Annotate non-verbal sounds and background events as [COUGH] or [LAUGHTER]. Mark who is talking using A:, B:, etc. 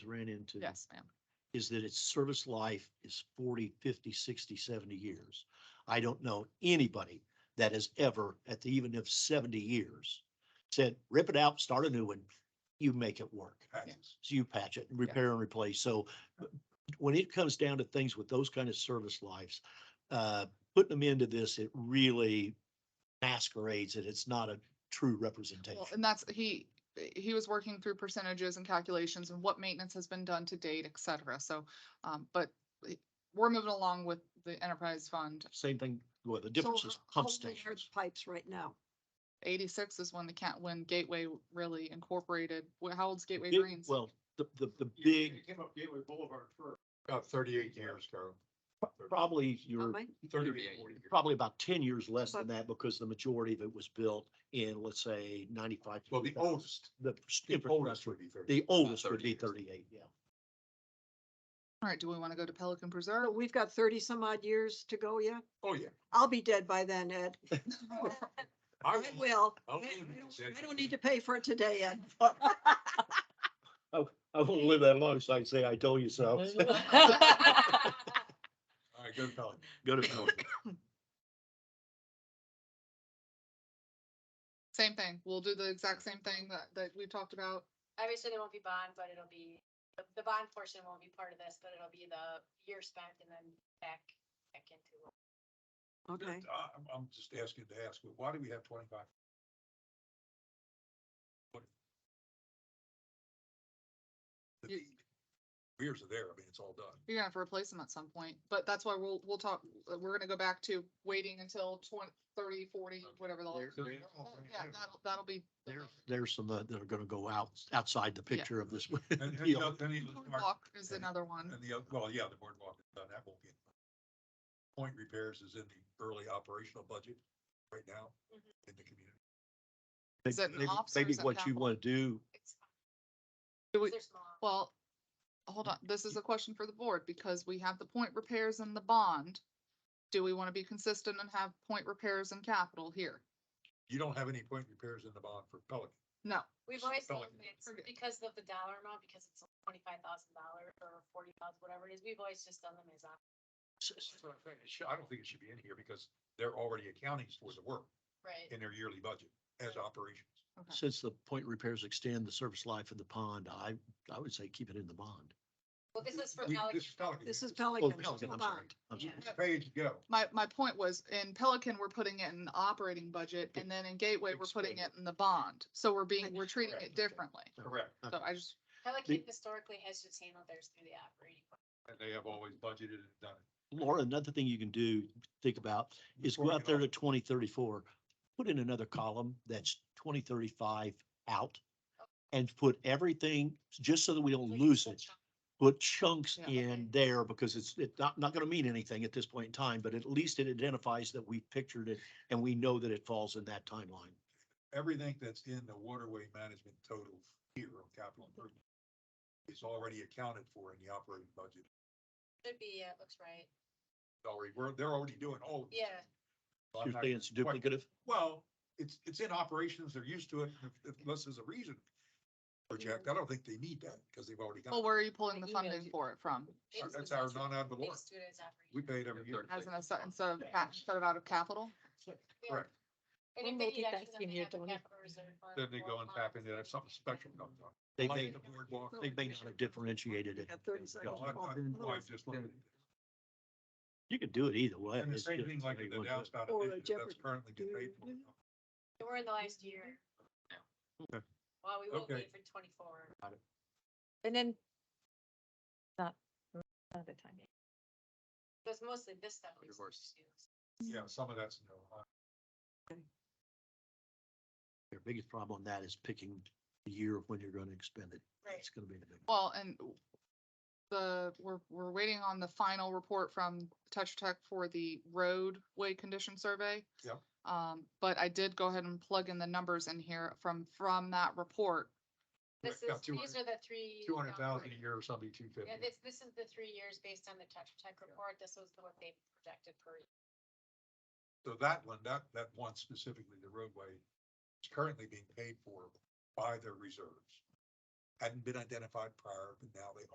A: ran into.
B: Yes, ma'am.
A: Is that its service life is 40, 50, 60, 70 years. I don't know anybody that has ever, at the even of seventy years, said, rip it out, start a new one, you make it work.
B: Patches.
A: So you patch it, and repair and replace. So uh, when it comes down to things with those kind of service lives, uh, putting them into this, it really masquerades it. It's not a true representation.
B: Well, and that's, he, he was working through percentages and calculations and what maintenance has been done to date, et cetera. So, um, but it- we're moving along with the enterprise fund.
A: Same thing, well, the
C: So
A: difference is pump
C: how- how old are
A: stations.
C: the Pipes right now.
B: Eighty-six is when the cat, when Gateway really incorporated, wh- how old's Gateway
A: Big-
B: Greens?
A: Well, the, the, the
D: Yeah,
A: big,
D: It came up Gateway Boulevard first.
E: About thirty-eight years ago.
A: probably your,
C: Mike?
E: Thirty-eight. 40 years.
A: probably about ten years less than
C: But-
A: that because the majority of it was built in, let's say, ninety-five.
E: Well, the
A: 2000.
E: oldest,
A: The
E: the oldest
A: infrastructure,
E: would be thirty.
A: the oldest would
E: 30
A: be
E: years.
A: thirty-eight, yeah.
B: All right, do we want to go to Pelican
C: So [LAUGHS]
B: Preserve?
C: We've got thirty some odd years to go yet.
E: Oh, yeah.
C: I'll be dead by then, Ed. I
E: I will.
C: will. I
E: I'll
C: I
E: live
C: don't-
E: it.
C: I don't need to pay for it today, Ed.
A: I won't live that long, so I say, I told you so.
E: All right, good call.
A: [LAUGHS] Go to Pelican.
B: Same thing. We'll do the exact same thing that, that we talked about.
F: Obviously, there won't be bond, but it'll be, the- the bond portion won't be part of this, but it'll be the year spent and then back, back into. it.
C: Okay.
E: I- I'm, I'm just asking to ask, but why do we have twenty-five? What- The
B: You-
E: Beers are there, I mean, it's all done.
B: You're gonna have to replace them at some point, but that's why we'll, we'll talk, uh, we're gonna go back to waiting until twenty, thirty, forty, whatever the.
A: There's-
B: Yeah,
A: there's-
B: that'll, that'll be.
A: There's, there's some uh, that are gonna go out, outside the
B: Yeah.
A: picture of this.
E: And, and,
A: Yeah.
E: the oth- and the other-
B: Walk is another one.
E: and the, oth- well, yeah, the boardwalk is done, that won't be. in the budget. Point repairs is in the early operational budget right now
A: Mm-hmm.
E: in the community.
B: [LAUGHS] Is it
A: [LAUGHS]
B: an
A: Maybe-
B: officer or
A: Maybe
B: is it
A: what you
B: capital?
A: wanna do,
F: It's fine,
B: Do
F: 'cause
B: we-
F: They're small.
B: Well, hold on, this is a question for the board, because we have the point repairs in the bond. Do we wanna be consistent and have point repairs in capital here?
E: You don't have any point repairs in the bond for Pelican.
B: No,
F: We've always
E: Spell
F: said
E: it.
F: it's because of the dollar amount, because it's twenty-five thousand dollars or forty thousand, whatever it is, we've always just done them as. op-
E: That's what I'm saying. It should- I don't think it should be in here because they're already accounting for the work
F: Right.
E: in their yearly budget as operations.
B: okay,
A: since the point repairs extend the service life of the pond, I, I would say keep it in the bond.
F: Well, this is for
E: We-
F: Pelican.
E: This is Pelican.
C: This is
A: Oh,
C: Pelican.
A: Pelican, I'm
C: Come
A: sorry.
C: on.
A: I'm sorry.
F: Yeah.
E: This Page go.
B: my, my point was, in Pelican, we're putting it in the operating budget, and then in Gateway, we're putting it in the bond, so we're being, we're treating it differently.
E: Correct.
B: So I just,
F: Pelican historically has just handled theirs through the operating. budget.
E: And they have always budgeted and done it.
A: Laura, another thing you can do, think about, is
E: Before
A: go
E: we
A: out
E: get
A: there to
E: off-
A: twenty thirty-four, put in another column that's twenty thirty-five out. And put everything, just so that we don't
F: Like,
A: lose
F: that's
A: it,
F: not-
A: put chunks
B: Yeah.
A: in there because it's, it's not, not gonna mean anything at this point in time, but at least it identifies that we pictured it and we know that it falls in that timeline.
E: Everything that's in the waterway management total here on capital improvement is already accounted for in the operating budget.
F: Should be, yeah, it looks right.
E: It's Already, we're, they're already doing all. of it.
F: Yeah.
E: So I'm
A: You're
E: not
A: saying
E: gonna
A: it's
E: question-
A: duplicative?
E: Well, it's, it's in operations. They're used to it if- if- unless there's a reason. for Jack, I don't think they need that because they've already got.
B: well,
E: it.
B: where are you pulling
F: I
B: the
F: emailed
B: funding
F: you.
B: for it from?
F: They just-
E: That's our non-ad
F: they
E: valorem.
F: just do it as operating.
E: We paid every year.
B: As an, aside- instead of, ca- instead of out of capital?
F: Yeah.
E: Correct.
F: And
G: We're
F: if they need extra,
G: multitasking
F: then they
G: here,
F: have a
G: Tony.
F: capital reserve fund
E: Then they
F: or
E: go and
F: funds
E: tap into
F: that
E: that, if
F: they
E: something
F: can
E: special
F: tap
E: comes
F: into.
E: up.
A: They
E: Like
A: may,
E: the boardwalk.
A: they may not have differentiated it.
C: Got 30 seconds.
E: I- I- I just looked at it.
A: You could do it either way.
E: And the
A: It's
E: same
A: just-
E: thing like
A: they
E: in the
A: want to-
E: downspout
C: Or a
E: initiative
C: Jeopardy.
E: that's currently being paid for.
F: We're in the last year.
E: Okay.
F: Well, we will
E: Okay.
F: be for twenty-four.
G: And then. Not, not the time.
F: That's mostly this stuff. we
E: Of
F: used to
E: course.
F: do.
E: Yeah, some of that's no.
A: Their biggest problem on that is picking the year of when you're gonna expend it. It's gonna be the big.
B: Well, and the, we're, we're waiting on the final report from Tetra Tech for the roadway condition survey.
E: Yep.
B: Um, but I did go ahead and plug in the numbers in here from, from that report.
F: This
E: Yeah,
F: is, these
E: 200
F: are the three.
E: Two hundred thousand a
F: um,
E: year or something, two fifty.
F: Yeah, this, this is the three years based on the Tetra Tech report. This was the what they projected per. year.
E: So that one, that, that one specifically, the roadway, is currently being paid for by their reserves. hadn't been identified prior, but now they